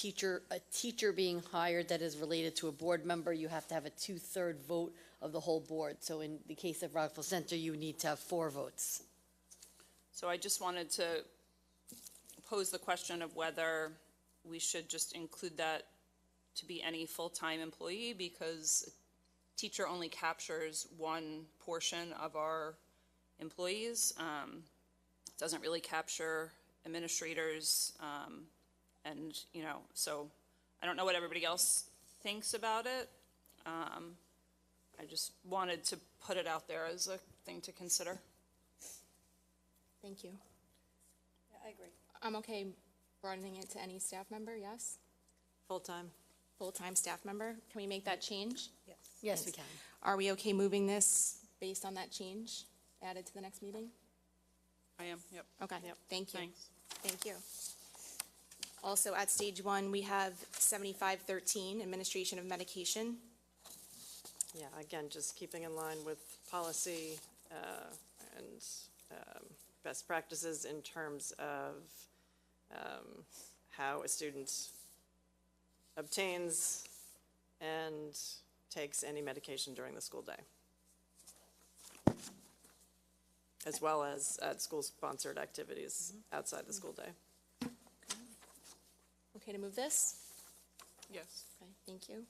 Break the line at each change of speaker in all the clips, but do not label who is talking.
teacher, a teacher being hired that is related to a board member, you have to have a two-third vote of the whole board. So in the case of Rockville Center, you need to have four votes.
So I just wanted to pose the question of whether we should just include that to be any full-time employee because teacher only captures one portion of our employees. Um, Doesn't really capture administrators, um, and, you know, so I don't know what everybody else thinks about it. Um, I just wanted to put it out there as a thing to consider.
Thank you.
I agree.
I'm okay broadening it to any staff member, yes?
Full-time.
Full-time staff member, can we make that change?
Yes.
Yes, we can.
Are we okay moving this based on that change added to the next meeting?
I am, yep.
Okay, thank you.
Thanks.
Thank you. Also, at stage one, we have seventy-five thirteen, administration of medication.
Yeah, again, just keeping in line with policy uh, and um, best practices in terms of um, how a student obtains and takes any medication during the school day. As well as at school-sponsored activities outside the school day.
Okay to move this?
Yes.
Okay, thank you.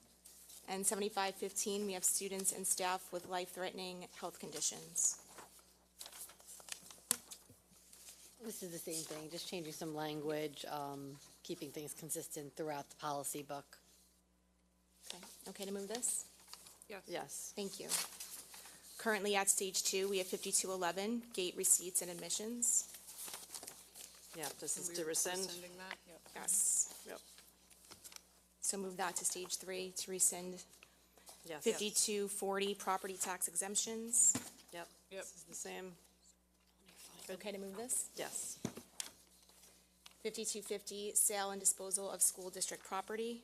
And seventy-five fifteen, we have students and staff with life-threatening health conditions.
This is the same thing, just changing some language, um, keeping things consistent throughout the policy book.
Okay, okay to move this?
Yes.
Yes,
Thank you. Currently at stage two, we have fifty-two eleven, gate receipts and admissions.
yeah, this is to rescind.
Rescinding that, yep.
Yes.
Yep,
So move that to stage three to rescind
yes.
fifty-two forty, property tax exemptions.
Yep.
Yep.
This is the same,
Okay to move this?
yes.
Fifty-two fifty, sale and disposal of school district property.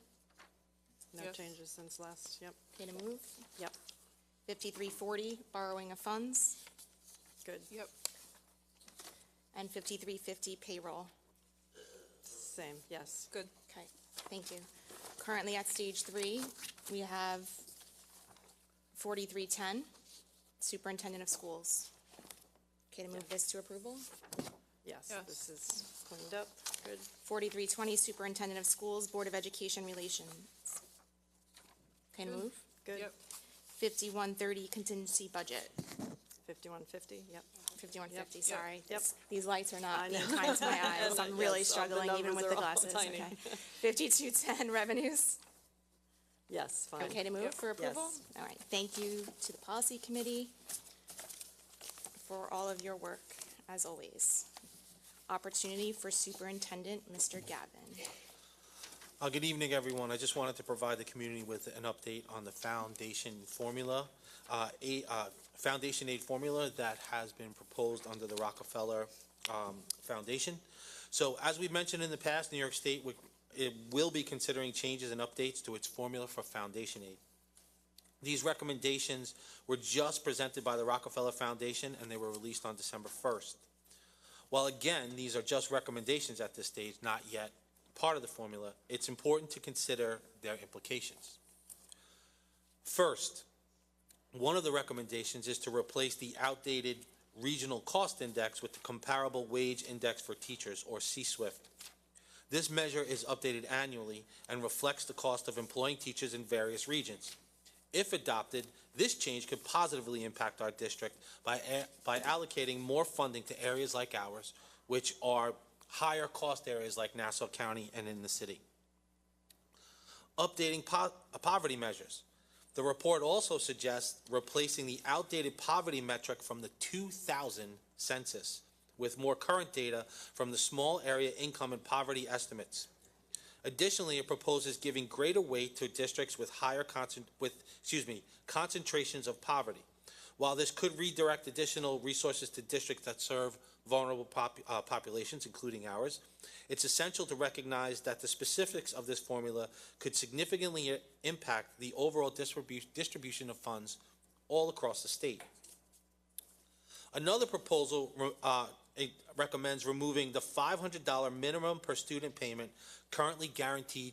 No
Yes.
changes since last, yep,
Okay to move?
yep,
Fifty-three forty, borrowing of funds.
good,
Yep,
And fifty-three fifty, payroll.
same, yes,
good.
Okay, thank you. Currently at stage three, we have forty-three ten, superintendent of schools. Okay, to move this to approval?
yes,
Yes.
this is cleaned up, good,
Forty-three twenty, superintendent of schools, Board of Education relations. Okay,
Hmm.
to move?
good.
Yep,
Fifty-one thirty, contingency budget,
Fifty-one fifty, yep.
fifty-one fifty,
Yep,
yep,
sorry.
yep.
These lights are
I
not being
know.
kind to my eyes,
know,
I'm really
yes, all the
struggling even
numbers
with the
are all
glasses,
tiny.
okay. Fifty-two ten, revenues.
Yes, fine.
Okay to
Yep.
move for approval?
Yes.
All right, thank you to the policy committee for all of your work, as always. Opportunity for Superintendent, Mr. Gavin.
Uh, Good evening, everyone. I just wanted to provide the community with an update on the foundation formula, uh, a- uh, foundation aid formula that has been proposed under the Rockefeller um, Foundation. So as we've mentioned in the past, New York State would- it will be considering changes and updates to its formula for foundation aid. These recommendations were just presented by the Rockefeller Foundation, and they were released on December 1st. While again, these are just recommendations at this stage, not yet part of the formula, it's important to consider their implications. First, one of the recommendations is to replace the outdated regional cost index with the comparable wage index for teachers, or C-SWIFT. This measure is updated annually and reflects the cost of employing teachers in various regions. If adopted, this change could positively impact our district by, a- by allocating more funding to areas like ours, which are higher cost areas like Nassau County and in the city. Updating po- uh, poverty measures. The report also suggests replacing the outdated poverty metric from the 2000 census with more current data from the small area income and poverty estimates. Additionally, it proposes giving greater weight to districts with higher concent, with, excuse me, concentrations of poverty. While this could redirect additional resources to districts that serve vulnerable pop, uh, populations, including ours, it's essential to recognize that the specifics of this formula could significantly i- impact the overall distribu- distribution of funds all across the state. Another proposal uh, It recommends removing the $500 minimum per student payment currently guaranteed